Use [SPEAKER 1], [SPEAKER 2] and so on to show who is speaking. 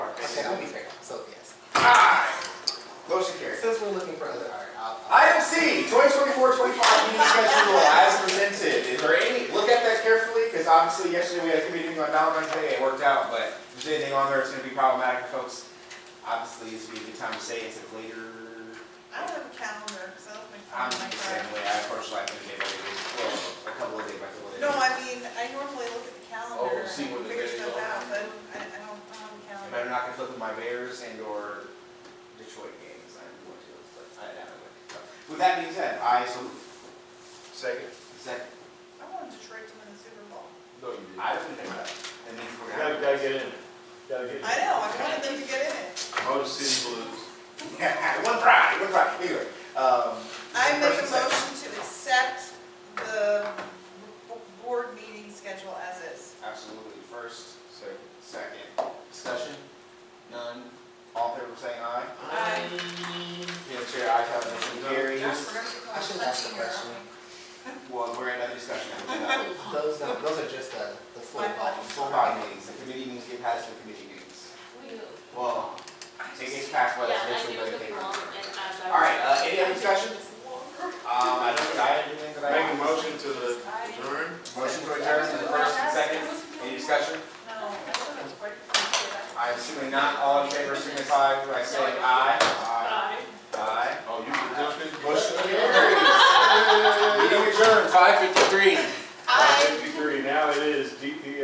[SPEAKER 1] Okay, I'll be fair, so yes.
[SPEAKER 2] Aye. Motion carries.
[SPEAKER 1] Since we're looking for other art, I'll, I'll-
[SPEAKER 2] Item C, 2024-25 meeting schedule as presented. Is there any, look at that carefully, because obviously yesterday we had a committee meeting on Valentine's Day, it worked out, but if there's anything on there, it's gonna be problematic for folks. Obviously, this would be a good time to say it's a later
[SPEAKER 3] I don't have a calendar, because I don't make
[SPEAKER 2] I'm
[SPEAKER 3] fun of my
[SPEAKER 2] the
[SPEAKER 3] friends.
[SPEAKER 2] same way, I approach life in a day by day, basis. well, a couple of day by couple of days.
[SPEAKER 3] No, I mean, I normally look at the calendar
[SPEAKER 2] Oh, see
[SPEAKER 3] and
[SPEAKER 2] when the
[SPEAKER 3] figure
[SPEAKER 2] days
[SPEAKER 3] stuff
[SPEAKER 2] are.
[SPEAKER 3] out, but I, I don't, I don't
[SPEAKER 2] And
[SPEAKER 3] have a calendar.
[SPEAKER 2] I'm not gonna flip with my Bears and or Detroit games, I'm going to, but I, I don't know. With that being said, I salute.
[SPEAKER 4] Second.
[SPEAKER 2] Second.
[SPEAKER 3] I wanted Detroit to win the Super Bowl.
[SPEAKER 4] No, you didn't.
[SPEAKER 2] I don't think that, and then for
[SPEAKER 4] Gotta, gotta get in. it. Gotta get in.
[SPEAKER 3] I know, I wanted them to get in it.
[SPEAKER 4] Motor City Blues.
[SPEAKER 2] One try, one try, anyway, um.
[SPEAKER 3] I make a
[SPEAKER 2] first and second.
[SPEAKER 3] motion to accept the b- board meeting schedule as is.
[SPEAKER 2] Absolutely, first, so, second, discussion, none, all in favor of saying aye?
[SPEAKER 3] Aye.
[SPEAKER 2] Yeah, chair, aye, have motion carries.
[SPEAKER 3] Josh, we're gonna be
[SPEAKER 1] I should ask a
[SPEAKER 3] collecting your own.
[SPEAKER 1] question.
[SPEAKER 2] Well, we're in another discussion. We're not-
[SPEAKER 1] Those, don't- those are just the, the full
[SPEAKER 3] My fault.
[SPEAKER 1] volume.
[SPEAKER 2] Full body meetings, the committee meetings get passed the committee meetings.
[SPEAKER 5] We do.
[SPEAKER 2] Well,
[SPEAKER 5] I
[SPEAKER 2] it gets
[SPEAKER 5] just-
[SPEAKER 2] passed by the
[SPEAKER 5] Yeah, I
[SPEAKER 2] special
[SPEAKER 5] knew it was
[SPEAKER 2] committee.
[SPEAKER 5] gonna be long,
[SPEAKER 2] Um,
[SPEAKER 5] and as I was.
[SPEAKER 2] All right, uh, any other
[SPEAKER 5] I think
[SPEAKER 2] discussion? Um,
[SPEAKER 5] it's longer.
[SPEAKER 2] I don't think I had anything that I.
[SPEAKER 4] Make a motion to adjourn.
[SPEAKER 2] Motion to adjourn, is the first and second, any discussion?
[SPEAKER 3] No, I thought it was right before you did that.
[SPEAKER 2] I'm assuming not, all in favor, signify by saying aye. Aye.
[SPEAKER 5] Bye.
[SPEAKER 2] Aye.
[SPEAKER 4] Oh, you adjourned?
[SPEAKER 2] Motion carries. Meeting adjourned, five fifty-three.
[SPEAKER 3] Aye.
[SPEAKER 4] Fifty-three, now it is DPS.